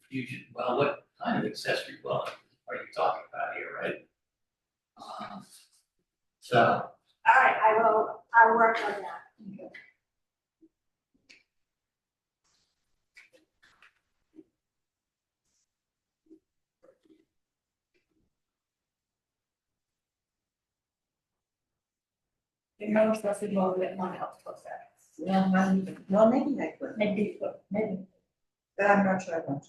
confusion, well, what kind of accessory dwelling are you talking about here, right? Um, So, All right, I will, I'll work on that. It knows us involved in one health process. No, not even, well, maybe I could, Maybe, but maybe. but I'm not sure I want to.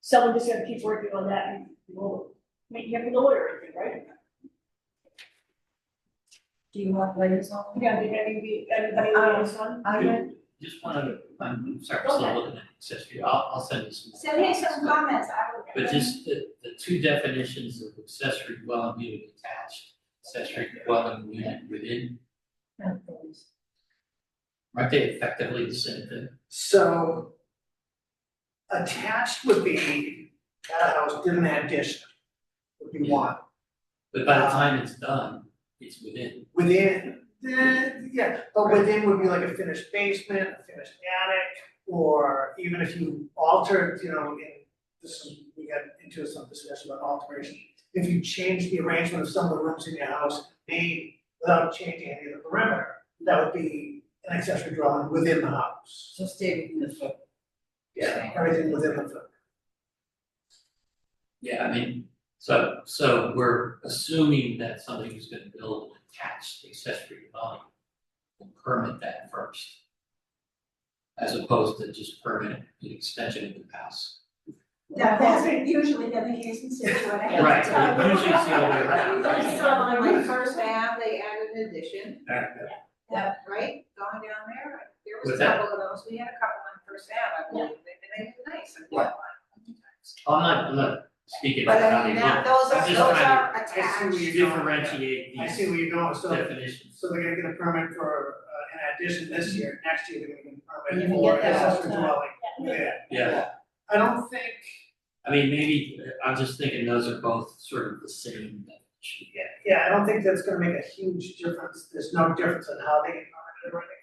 So we're just gonna keep working on that and we'll, I mean, you have a lawyer, I think, right? Do you want layers on? Yeah, did anybody, anybody Um, on this one? I would, just wanted to, I'm sorry, I'm still looking at accessory, I'll, I'll send you some. Send me some comments, I will. But just the, the two definitions of accessory dwelling unit attached, accessory dwelling unit within, aren't they effectively the same thing? So attached would be that house didn't have addition, would be one. But by the Uh, time it's done, it's within. Within, the, yeah, but within would be like a finished basement, a finished attic, or even if you altered, you know, in this is, we got into some discussion about alteration. If you change the arrangement of some of the rooms in your house, they, without changing any of the perimeter, that would be an accessory dwelling within the house. so stay within the foot. Yeah, everything within the Yeah, I mean, so, so we're assuming that somebody who's gonna build an attached accessory dwelling will permit that first. As opposed to just permit the extension of the house. That, that's usually been the case in Situate. Right, usually it's the other way around. First time, Like first half, they added an addition, Yeah. right, going down there, there was What's a that? couple of those, we had a couple on first half, I believe, and they were nice, and they were Right. I'm not, I'm not Oh, speaking But about I how they mean, look. that, I'm those are, just those trying are I see what attached. you- differentiate I see these where you're going, so, definitions. so they're gonna get a permit for uh, an addition this year, next year they're gonna get You a permit can for get that all accessory the dwelling, Yeah. yeah. Yeah, I don't think, I mean, maybe, I'm just thinking those are both sort of the same definition. yeah, yeah, I don't think that's gonna make a huge difference, there's no difference in how they get permitted or anything.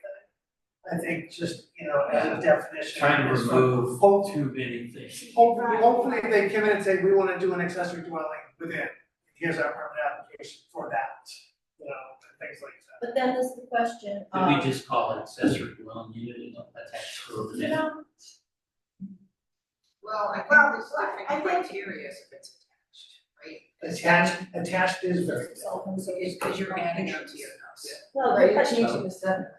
I think just, you know, as a definition. Trying to it's like, remove hope- too many things. Hopefully, hopefully if they come in and say, we wanna do an accessory dwelling within, here's our permit application for that, you know, and things like that. But then there's the question Could we Um, of, just call it accessory dwelling unit and not attached to a you building? know, Well, I think Well, there's I different think- criteria if it's attached, right? Attached, attached is very, So it's because you're adding up to your house. no, Right, but, changing the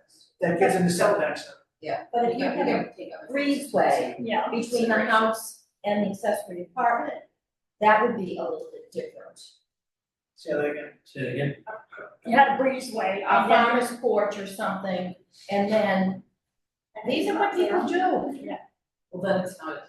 that gets into setback zone. but if you Yeah, have you a gotta take other things into breezeway Yeah. between the consideration. house and the accessory apartment, that would be a little bit different. Say that again. Say it again, You had a breezeway, A I found it. farmer's porch or something, and then, these are what people do. Well, then it's not,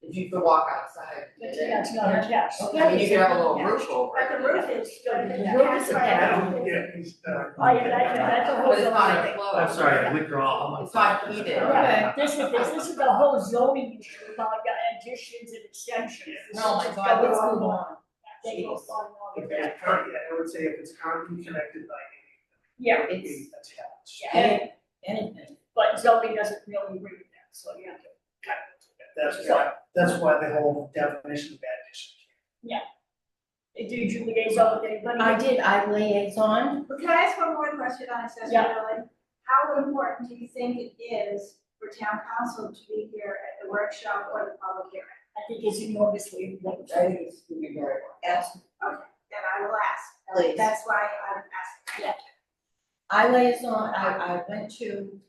if you could walk outside. But yeah, it's not attached. I mean, you could have a little roof over But it. the roof is still. The roof is a I bad don't get these, uh, Oh, yeah, that, that's a whole But it's not zoning. enclosed. Oh, I'm sorry, I withdraw. I'm- It's not heated. Yeah, this is, this this is the whole zoning issue about the additions and extensions. This Oh is my just God, going let's on. move on. They go on and on. if it's current, yeah, I would say if it's currently connected by Yeah, any, It's- attached. Any- Anything. but zoning doesn't really agree with that, so yeah. That's why, that's why the whole definition of addition. Did you liaison with anybody? I did, I liaison, Well, Can I ask one more question on accessory Yeah. dwelling? How important do you think it is for town council to be here at the workshop or the public hearing? I think it's enormously important. I think it's gonna be very well. absolutely. Then I will ask. Please. That's why I'm asking. I liaison, I, I went to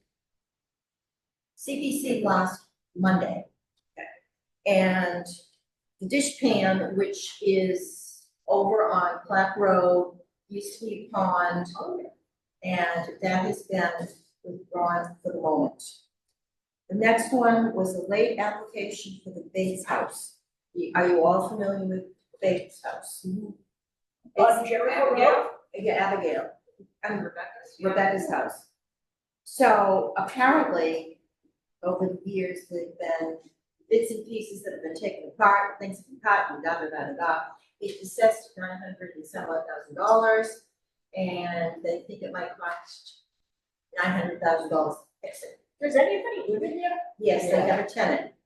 CPC last Monday. And the dish pan, which is over on Clap Road, East Sweet Pond. And that has been withdrawn for the moment. The next one was a late application for the Bates House. Are you all familiar with Bates House? On Jericho Road, Abigail? Yeah, Abigail. And Rebecca's? yeah. Rebecca's house. So apparently, over the years, there've been bits and pieces that have been taken apart, things have been cut and da da da da da. It's assessed nine hundred and some odd thousand dollars, and they think it might cost nine hundred thousand dollars to fix it. does anybody live in there? Yes, they have a tenant,